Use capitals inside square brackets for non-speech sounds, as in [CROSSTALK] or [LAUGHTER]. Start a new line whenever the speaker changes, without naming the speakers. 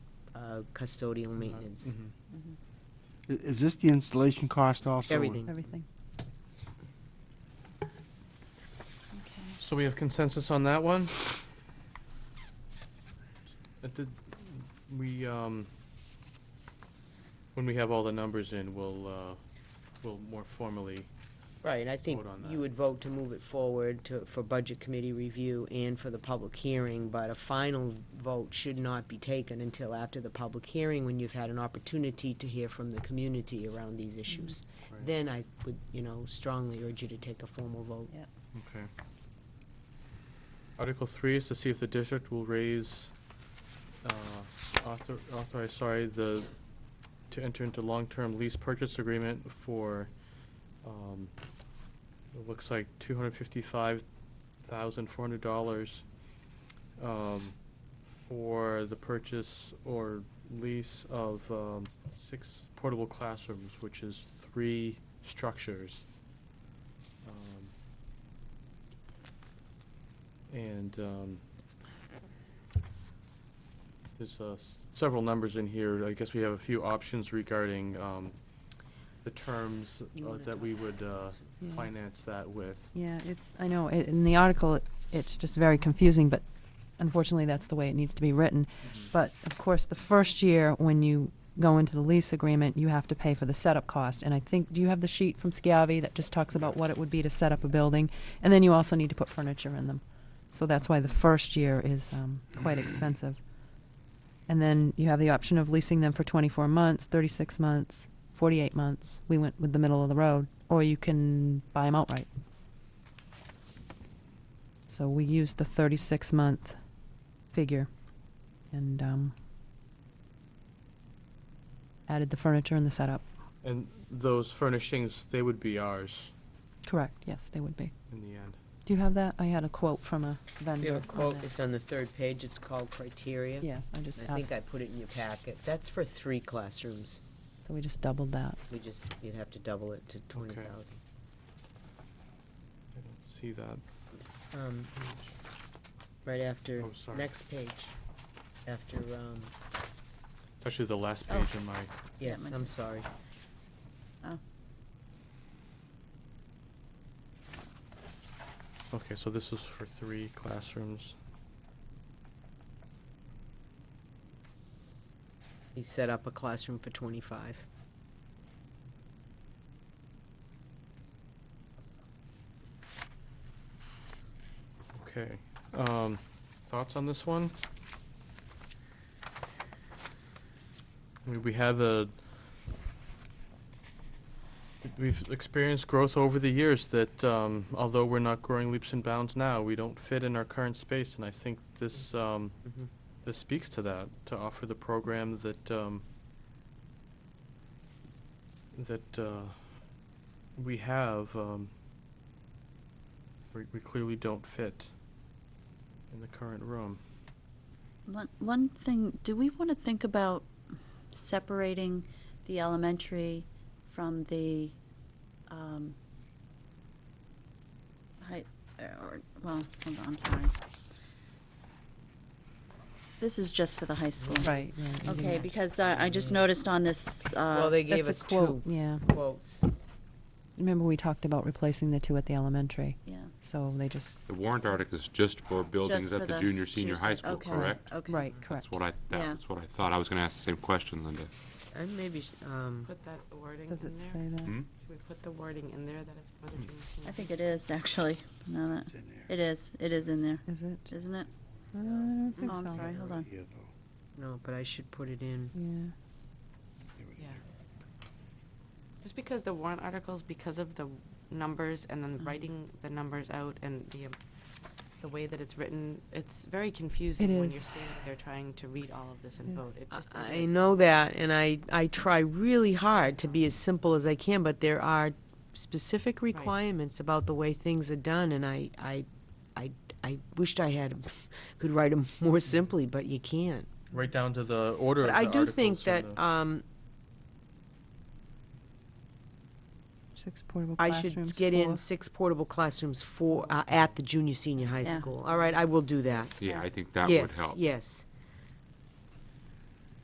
uh, custodial maintenance,
Mm-hmm.
I- Is this the installation cost also?
everything.
everything.
So we have consensus on that one? That did, we, um, when we have all the numbers in, we'll, uh, we'll more formally,
Right, I think
Vote on
you
that.
would vote to move it forward to, for budget committee review and for the public hearing, but a final vote should not be taken until after the public hearing, when you've had an opportunity to hear from the community around these
Mm-hmm.
issues.
Right.
Then I would, you know, strongly urge you to take a formal vote.
okay. Article three is to see if the district will raise, uh, author, authorize, sorry, the, to enter into long-term lease purchase agreement for, um, it looks like two hundred fifty-five thousand four hundred dollars um, for the purchase or lease of um, six portable classrooms, which is three structures. Um, And um, there's uh, s- several numbers in here. I guess we have a few options regarding um, the terms
You
uh,
wanna
that
talk
we would uh,
Yeah.
finance that with.
Yeah, it's, I know, i- in the article, it- it's just very confusing, but unfortunately, that's the way it needs to be written. But of course, the first year, when you go into the lease agreement, you have to pay for the setup cost. And I think, do you have the sheet from Schiavi that just talks about what it would be to set up a building? And then you also need to put furniture in them. So that's why the first year is um, quite expensive. And then you have the option of leasing them for 24 months, 36 months, 48 months. We went with the middle of the road. Or you can buy them outright. So we used the 36 month figure and um, added the furniture and the setup.
And those furnishings, they would be ours
Correct, yes, they would be.
in the end.
Do you have that? I had a quote from a vendor.
We have a
on
quote,
that.
it's on the third page, it's called criteria.
Yeah, I just
I
asked,
think I put it in your packet. That's for three classrooms.
so we just doubled that.
We just, you'd have to double it to twenty thousand.
I don't see that.
Um, right after,
Oh, sorry.
next page, after, um,
It's actually the last
Oh.
page in my,
yes,
mine
I'm
too.
sorry.
okay, so this is for three classrooms.
He set up a classroom for twenty-five.
Okay. Um, thoughts on this one? We- We have a, we've experienced growth over the years that, um, although we're not growing leaps and bounds now, we don't fit in our current space, and I think this, um,
Mhm.
this speaks to that, to offer the program that, um, that, uh, we have, um, we, we clearly don't fit in the current room.
One, one thing, do we want to think about separating the elementary from the, um, high, uh, or, well, hold on, I'm sorry. This is just for the high school.
Right, yeah. you do
Okay,
that.
because I, I just noticed on this, uh.
Well, they gave
That's a
us two
quote, Yeah,
quotes.
remember we talked about replacing the two at the elementary,
Yeah.
so they just,
The warrant article is just for buildings
just for
at the
the
junior, senior high
junior-
school,
okay,
correct?
Okay.
right, correct.
That's what I,
Yeah.
that's what I thought. I was gonna ask the same question, Linda.
And maybe, um,
Put that wording in there?
Does it say that?
Hmm?
Should we put the wording in there that it's for
Mm.
the junior senior?
I think it is, actually, now that,
It's in there.
it is, it is in there,
Is it?
isn't it?
I don't think
Oh, I'm
so.
sorry, hold on.
Yeah, though.
no, but I should put it in.
Yeah.
Yeah. Just because the warrant articles, because of the numbers and
Mm-hmm.
then writing the numbers out and the, um, the way that it's written, it's very confusing when you're
is.
standing there trying to read all of this
It
and vote.
is.
It
I-
just. it
I
is.
know that, and I, I try really hard to be as simple as I can, but there are specific requirements about the way things are done, and I, I, I, I wished I had, [LAUGHS] could write them
Mm-hmm.
more simply, but you can't.
Right down to the order of
But
the
I
articles.
do think that,
and the-
um,
Six portable
I
classrooms.
should get
four-
in six portable classrooms for, uh, at the junior, senior high
Yeah.
school. All right, I will do that.
Yeah, I think that would
Yes,
help.
yes.